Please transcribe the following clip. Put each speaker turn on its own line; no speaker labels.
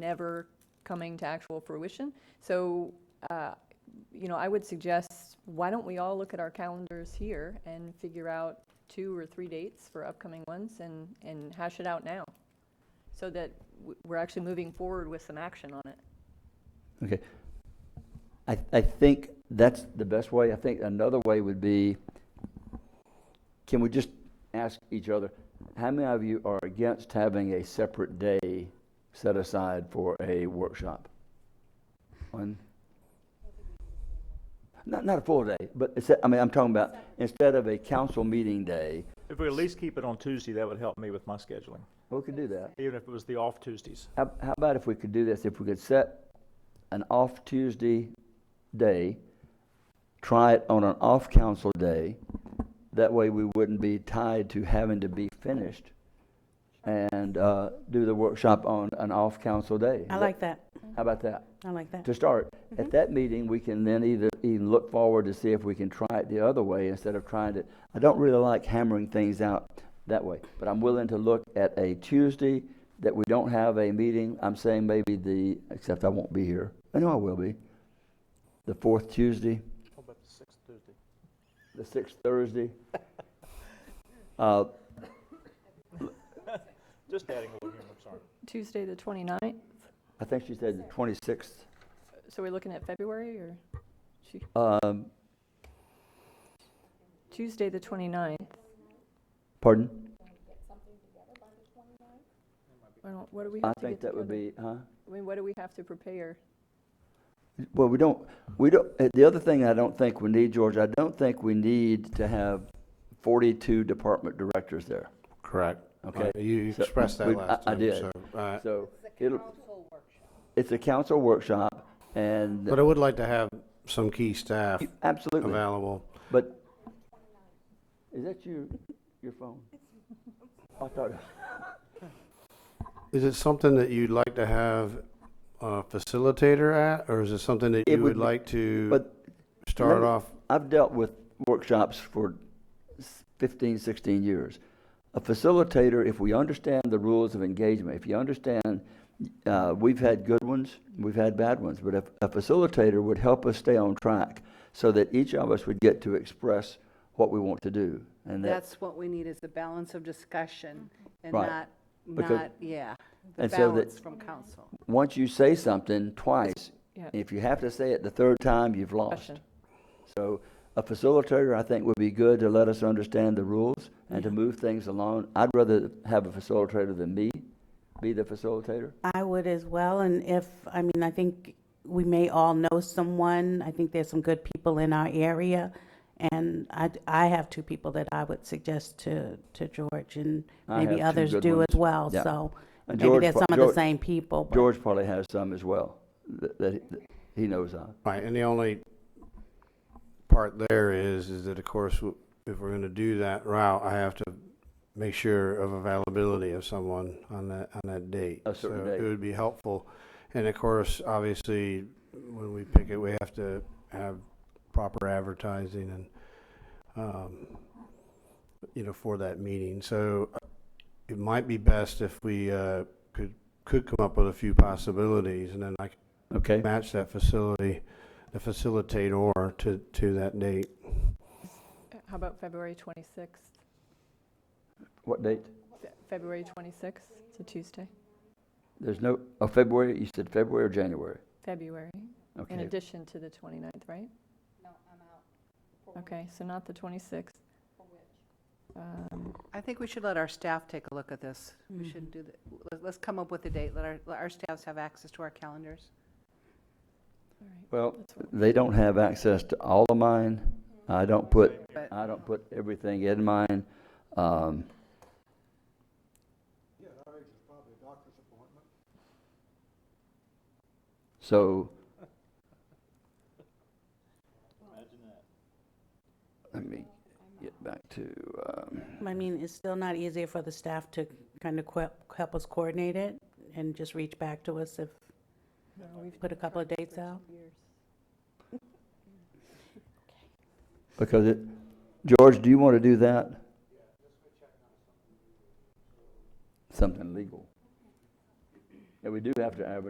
never coming to actual fruition. So, uh, you know, I would suggest, why don't we all look at our calendars here and figure out two or three dates for upcoming ones and, and hash it out now? So that w- we're actually moving forward with some action on it.
Okay. I, I think that's the best way. I think another way would be, can we just ask each other, how many of you are against having a separate day set aside for a workshop? One? Not, not a full day, but it's, I mean, I'm talking about, instead of a council meeting day,
If we at least keep it on Tuesday, that would help me with my scheduling,
we could do that.
even if it was the off Tuesdays.
How, how about if we could do this, if we could set an off Tuesday day, try it on an off council day, that way we wouldn't be tied to having to be finished, and, uh, do the workshop on an off council day.
I like that.
How about that?
I like that.
To start,
Mm-hmm.
at that meeting, we can then either, even look forward to see if we can try it the other way instead of trying to, I don't really like hammering things out that way, but I'm willing to look at a Tuesday that we don't have a meeting, I'm saying maybe the, except I won't be here, I know I will be, the fourth Tuesday,
What about the sixth Tuesday?
the sixth Thursday. Uh,
Just adding a little here, I'm sorry.
Tuesday, the 29th,
I think she said the twenty-sixth,
so we're looking at February or Tu-
um,
Tuesday, the 29th?
pardon?
I don't- What do we
I
have to
think
get
that would
together?
be, huh?
I mean, what do we have to prepare?
Well, we don't, we don't, uh, the other thing I don't think we need, George, I don't think we need to have forty-two department directors there.
Correct.
Okay.
Uh, You you
So,
expressed
we-
that last
I- I
time.
did.
so, uh,
So it'll, it's a council workshop and
But I would like to have some key staff
absolutely,
available.
but is that your, your phone? I thought,
Is it something that you'd like to have a facilitator at, or is it something that
It
you
would
would
be-
like to
but
start
me-
off?
I've dealt with workshops for s- 15, 16 years. A facilitator, if we understand the rules of engagement, if you understand, uh, we've had good ones, we've had bad ones, but if a facilitator would help us stay on track so that each of us would get to express what we want to do. And that,
That's what we need, is the balance of discussion and
Right.
not,
Because-
not, yeah, the
And so that-
balance from council.
once you say something twice,
Yeah.
if you have to say it the third time, you've lost.
Question.
So a facilitator, I think, would be good to let us understand the rules and to move things along. I'd rather have a facilitator than me be the facilitator.
I would as well, and if, I mean, I think we may all know someone. I think there's some good people in our area. And I, I have two people that I would suggest to, to George, and
I
maybe
have two
others
good
do
ones.
as well.
Yeah.
So
And
maybe
George
there's
pro-
some of the
George-
same people. but-
George probably has some as well that, that he- that he knows of.
Right, and the only part there is, is that of course, w- if we're going to do that route, I have to make sure of availability of someone on that, on that date.
A certain
So
date.
It would be helpful. And of course, obviously, when we pick it, we have to have proper advertising and, um, you know, for that meeting. So uh, it might be best if we, uh, could, could come up with a few possibilities and then I can
Okay.
match that facility, the facilitator to, to that date.
How about February 26th?
What date?
Fe- February 26th, it's a Tuesday,
There's no, oh, February, you said February or January?
February, in
Okay.
addition to the 29th, right? No, I'm out. Okay, so not the 26th. Um,
I think we should let our staff take a look at this. We should do, the- let- let's come up with a date, let our, let our staffs have access to our calendars.
all right,
Well,
that's what-
they don't have access to all of mine. I don't put,
But-
I don't put everything in mine. Um, So. Let me get back to, um,
I mean, it's still not easier for the staff to kind of que- help us coordinate it and just reach back to us if,
no, we've
put a couple of dates out.
years.
because it, George, do you want to do that? Something legal. Yeah, we do have to advertise